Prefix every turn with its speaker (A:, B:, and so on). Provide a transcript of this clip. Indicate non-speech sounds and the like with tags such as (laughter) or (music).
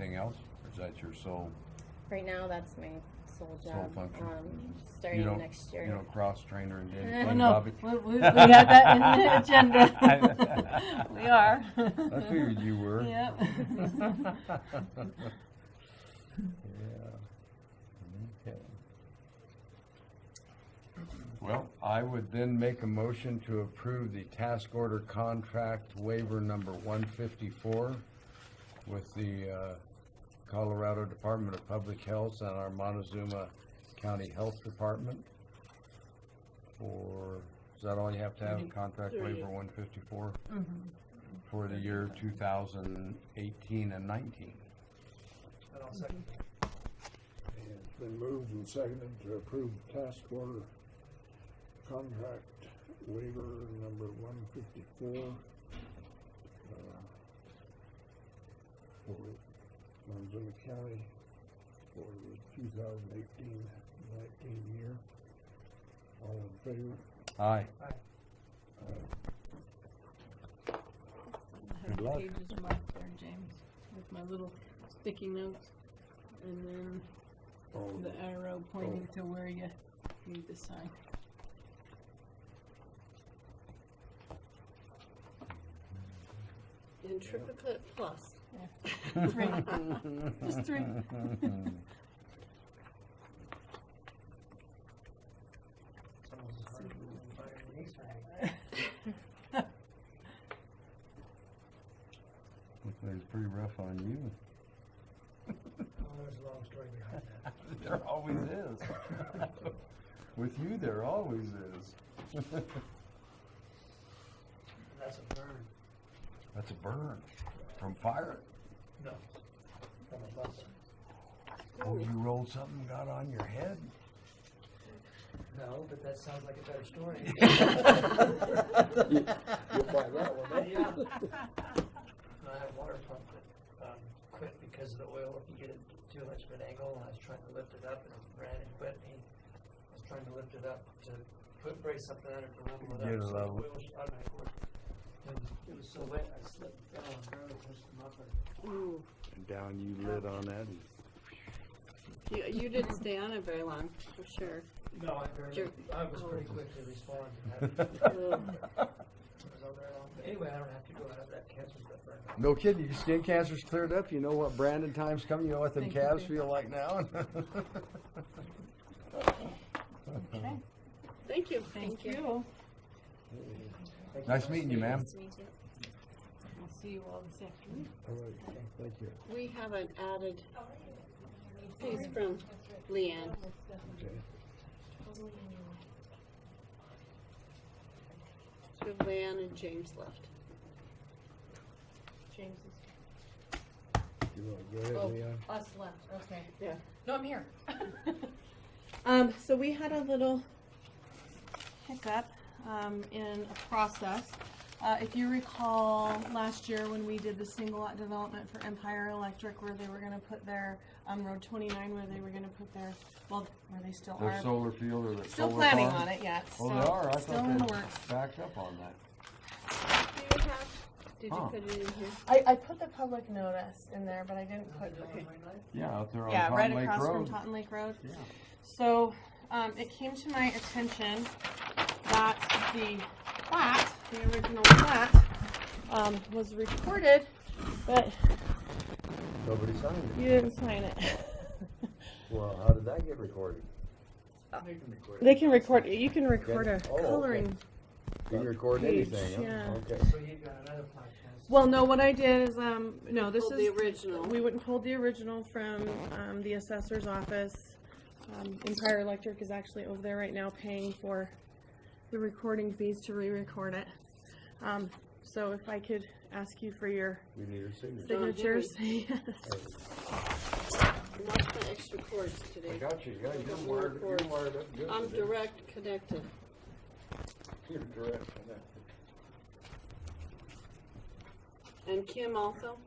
A: anything else? Or is that your sole,
B: Right now, that's my sole
A: Sole
B: job,
A: function.
B: um,
A: you
B: starting
A: don't,
B: next
A: you
B: year.
A: don't cross-train her and do anything,
B: Oh,
C: no.
A: Bobby?
C: We, we, we had that in (laughs) the
A: (laughs)
C: agenda. (laughs) we are.
A: I figured you were.
C: (laughs) Yep.
A: (laughs) Yeah. Okay. Well, I would then make a motion to approve the task order contract waiver number one fifty-four with the uh, Colorado Department of Public Health and our Montezuma County Health Department for, is that all you have to
C: Mm-hmm.
A: have, contract waiver one fifty-four? for the year two thousand eighteen and nineteen.
D: And I'll second.
E: And It's been moved and seconded to approve task order contract waiver number one fifty-four. uh, For Monzuma County for the 2018-19 year. All in favor?
A: Aye.
C: I have
E: Good luck.
C: pages marked there, James, with my little sticky notes, and then
E: All
C: the arrow pointing to where you need to
F: (laughs)
C: sign.
F: And triplicate plus.
A: (laughs)
C: Three. Just three.
D: Someone's hard to find these right now.
A: Looks like it's pretty rough on you.
D: Oh, There's a long story behind that.
A: There always is. With you, there always is.
D: That's a burn.
A: That's a burn from fire.
D: No. From a bus.
A: Oh, you rolled something, and got on your head?
D: No, but that sounds like a better (laughs) story.
E: You'll find that one out.
D: Yeah. And I had a water pump that, um, quit because of the oil, if you get it too much of an angle, and I was trying to lift it up and it ran and quit, and I was trying to lift it up to put, brace something on it to level it up.
A: Get it
D: so the
A: level.
D: oil shot my cord. And it was so wet, I slipped down and barely pushed them up, and
A: And down you lit on that. and-
F: You, you didn't stay on it very long, for sure.
D: No, I very,
F: Sure.
D: I was pretty quick to respond to
A: (laughs)
D: that. It was all very long. But Anyway, I don't have to go out of that cancer stuff right now.
A: No kidding, your skin cancer's cleared up, you know what Brandon time's coming, you know what them
C: Thank you,
A: calves
C: thank
A: feel like now? (laughs)
C: Okay,
F: Thank you.
C: thank you.
A: Nice meeting you, ma'am.
B: Nice to meet you.
C: I'll see you all this afternoon.
E: All right, thank you.
F: We haven't added, he's from Leanne.
E: Okay.
F: We have Leanne and James left.
G: James
E: You wanna go ahead,
G: Oh.
E: Leon?
G: is us left, okay.
F: Yeah.
G: No, I'm (laughs) here.
F: Um, so we had a little
G: Hiccup, um, in a process. Uh, if you recall, last year when we did the single lot development for Empire Electric where they were gonna put their, um, Road twenty-nine where they were gonna put their, well, where they still
A: Their
G: are.
A: solar field or their solar farm?
G: Still planning on it yet,
A: Oh, they are,
G: so,
A: I
G: still in the
A: thought
G: works.
A: they backed up on that.
F: Do you have, did
A: Huh.
F: you put it in here?
G: I, I put the public notice in there, but I didn't put,
D: Okay. Right
A: Yeah, out there on
G: Yeah, right
A: Cotton Lake
G: across from
A: Road.
G: Totten Lake Road.
A: Yeah.
G: So, um, it came to my attention that the plat, the original plat, um, was recorded, but
A: Nobody signed
G: you didn't sign it. (laughs)
A: Well, how did that get recorded?
D: now. They can record it.
G: They can record, you can record a
A: Oh, okay.
G: coloring.
A: You can record
G: Page,
A: anything, huh?
G: yeah.
A: okay.
D: So you've got another podcast.
G: Well, no, what I did is, um, no, this
F: Pulled
G: is.
F: the original.
G: We went and pulled the original from, um, the assessor's office. Um, Empire Electric is actually over there right now paying for the recording fees to re-record it. Um, so if I could ask you for your
A: We need a signature.
G: signatures, (laughs) yes.
F: And that's my extra cords
A: I
F: today.
A: got you, yeah, you're
F: We'll
A: wired, you're
F: record.
A: wired up good.
F: I'm
A: today.
F: direct connected.
A: You're direct.
F: And Kim also?